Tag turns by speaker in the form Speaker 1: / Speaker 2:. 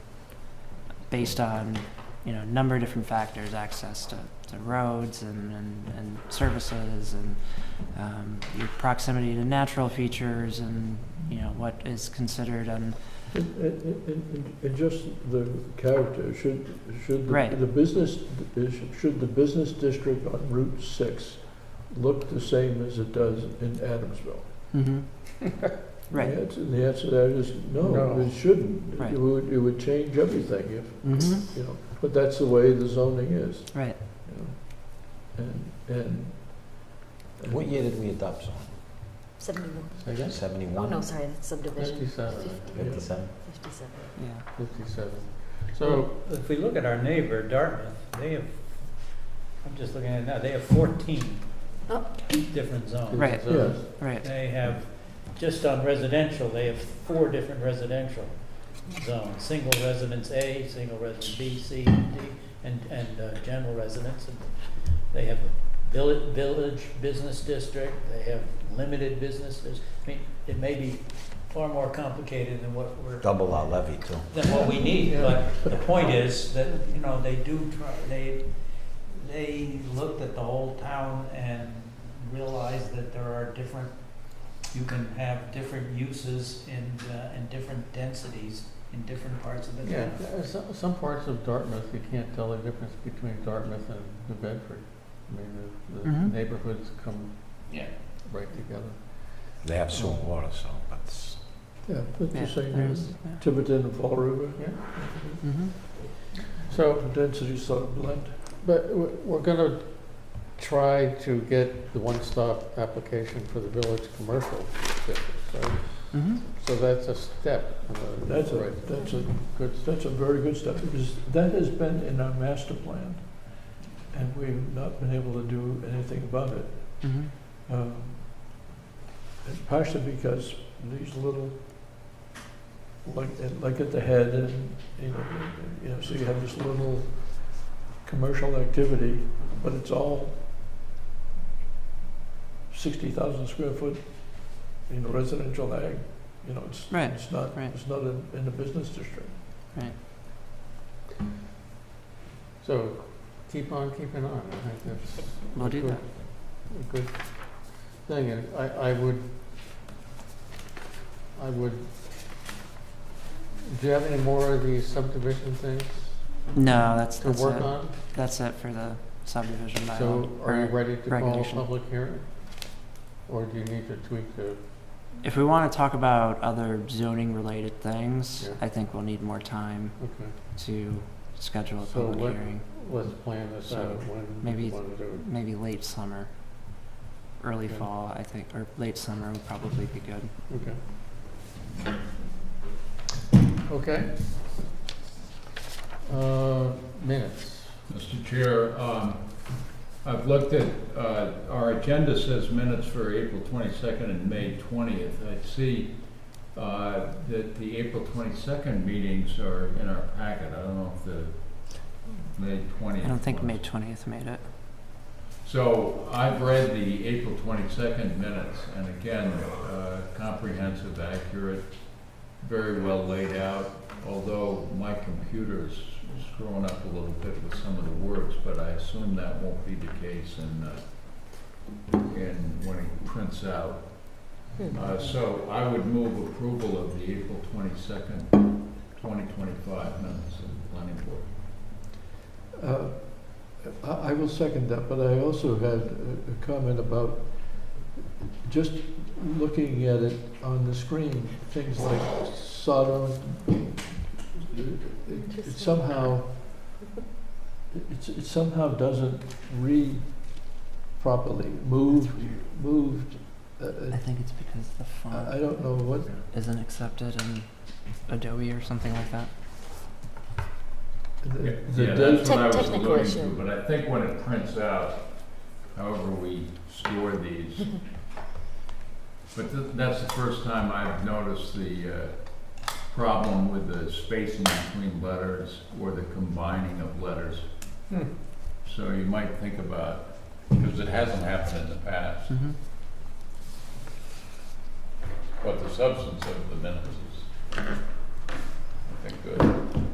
Speaker 1: based on, you know, a number of different factors, access to, to roads and, and, and services and, um, your proximity to natural features and, you know, what is considered and,
Speaker 2: And, and- and- and- and just the character, should, should the-
Speaker 1: Right.
Speaker 2: the business, should the business district on Route 6 look the same as it does in Adamsville?
Speaker 1: right.
Speaker 2: The answer- The answer to that is no,
Speaker 3: No.
Speaker 2: it shouldn't.
Speaker 1: Right.
Speaker 2: It would, it would change everything if,
Speaker 1: Mm-hmm.
Speaker 2: you know, but that's the way the zoning is.
Speaker 1: Right.
Speaker 2: you know. And, and. and-
Speaker 4: What year did we adopt zoning?
Speaker 5: 71.
Speaker 3: Again?
Speaker 5: Oh, no,
Speaker 4: Seventy-one,
Speaker 5: sorry, that's subdivision.
Speaker 3: Fifty-seven,
Speaker 4: fifty-seven?
Speaker 5: 57.
Speaker 1: Yeah.
Speaker 3: fifty-seven. So if we look at our neighbor Dartmouth, they have, I'm just looking at it now, they have fourteen
Speaker 5: Oh.
Speaker 3: different zones.
Speaker 1: Right.
Speaker 2: Yes,
Speaker 1: Right.
Speaker 3: They have, just on residential, they have four different residential zones. Single residence A, single residence B, C, and D, and, and uh, general residence. And They have a village, village business district, they have limited businesses. I mean, it may be far more complicated than what we're,
Speaker 4: Double our levy too.
Speaker 3: than what we need,
Speaker 2: Yeah.
Speaker 3: but the point is that, you know, they do try, they, they looked at the whole town and realized that there are different, you can have different uses in, uh, in different densities in different parts of the
Speaker 6: Yeah,
Speaker 3: town.
Speaker 6: uh, some, some parts of Dartmouth, you can't tell the difference between Dartmouth and New Bedford. I mean, the, the
Speaker 2: Mm-hmm.
Speaker 1: Mhm.
Speaker 6: neighborhoods come
Speaker 3: Yeah.
Speaker 6: right together.
Speaker 4: They have sewer and water, so that's.
Speaker 2: yeah, that's
Speaker 1: Yeah,
Speaker 2: the same
Speaker 1: there
Speaker 2: as
Speaker 1: is, yeah.
Speaker 2: Tiverton and Fall River,
Speaker 1: Mhm.
Speaker 6: So,
Speaker 2: density sort of blend.
Speaker 6: but w- we're gonna try to get the one-stop application for the village commercial district, right?
Speaker 1: Mhm.
Speaker 6: So that's a step. in the
Speaker 2: That's a,
Speaker 6: right-
Speaker 2: that's a
Speaker 6: Good step.
Speaker 2: That's a very good step, because that has been in our master plan, and we've not been able to do anything about it.
Speaker 1: Mhm.
Speaker 2: Um, and Partially because these little, like, like at the head, and, you know, you know, so you have this little commercial activity, but it's all sixty thousand square foot, you know, residential ag, you know, it's,
Speaker 1: Right,
Speaker 2: it's not,
Speaker 1: right.
Speaker 2: it's not in, in the business district.
Speaker 6: So keep on keeping on. I think that's
Speaker 1: We'll do that.
Speaker 6: a good thing, and I, I would, I would, do you have any more of these subdivision things
Speaker 1: No, that's,
Speaker 6: to
Speaker 1: that's
Speaker 6: work
Speaker 1: it.
Speaker 6: on?
Speaker 1: That's it for the subdivision
Speaker 6: So
Speaker 1: bylaw.
Speaker 6: are you
Speaker 1: Or
Speaker 6: ready to call a
Speaker 1: regulation.
Speaker 6: public hearing? Or do you need to tweak the,
Speaker 1: If we want to talk about other zoning related things,
Speaker 6: Yeah.
Speaker 1: I think we'll need more time
Speaker 6: okay,
Speaker 1: to schedule a
Speaker 6: So
Speaker 1: public
Speaker 6: what-
Speaker 1: hearing.
Speaker 6: let's plan this out
Speaker 1: So
Speaker 6: when
Speaker 1: maybe
Speaker 6: you
Speaker 1: it's-
Speaker 6: want to do it.
Speaker 1: Maybe late summer, early
Speaker 6: Okay.
Speaker 1: fall, I think, or late summer would probably be good.
Speaker 6: Okay. Uh, minutes.
Speaker 7: Mr. Chair, um, I've looked at, uh, our agenda says minutes for April 22nd and May 20th. I see uh, that the April 22nd meetings are in our packet. I don't know if the May 20th.
Speaker 1: I don't think
Speaker 7: was.
Speaker 1: May twentieth made it.
Speaker 7: So I've read the April 22nd minutes, and again, uh, comprehensive, accurate, very well laid out, although my computer's screwing up a little bit with some of the words, but I assume that won't be the case in, uh, in when it prints out.
Speaker 2: Hmm.
Speaker 7: Uh, So I would move approval of the April 22nd, 2025 minutes of the planning board.
Speaker 2: Uh, I I will second that, but I also had a- a comment about just looking at it on the screen, things like Sodom, it- it somehow, it it somehow doesn't read properly, moved, moved. uh,
Speaker 1: I
Speaker 2: uh,
Speaker 1: think it's because the
Speaker 7: Uh,
Speaker 2: I I
Speaker 1: font
Speaker 2: don't know what,
Speaker 1: isn't accepted in Adobe or something like that.
Speaker 2: the-
Speaker 7: Yeah,
Speaker 2: the
Speaker 7: yeah,
Speaker 2: date-
Speaker 7: that's what I was
Speaker 5: Technical
Speaker 7: alluding
Speaker 5: issue.
Speaker 7: to, but I think when it prints out, however we score these. But th- that's the first time I've noticed the, uh, problem with the spacing between letters or the combining of letters.
Speaker 6: Hmm.
Speaker 7: So you might think about, because it hasn't happened in the past,
Speaker 1: Mm-hmm.
Speaker 7: but the substance of the minutes is, I think, good.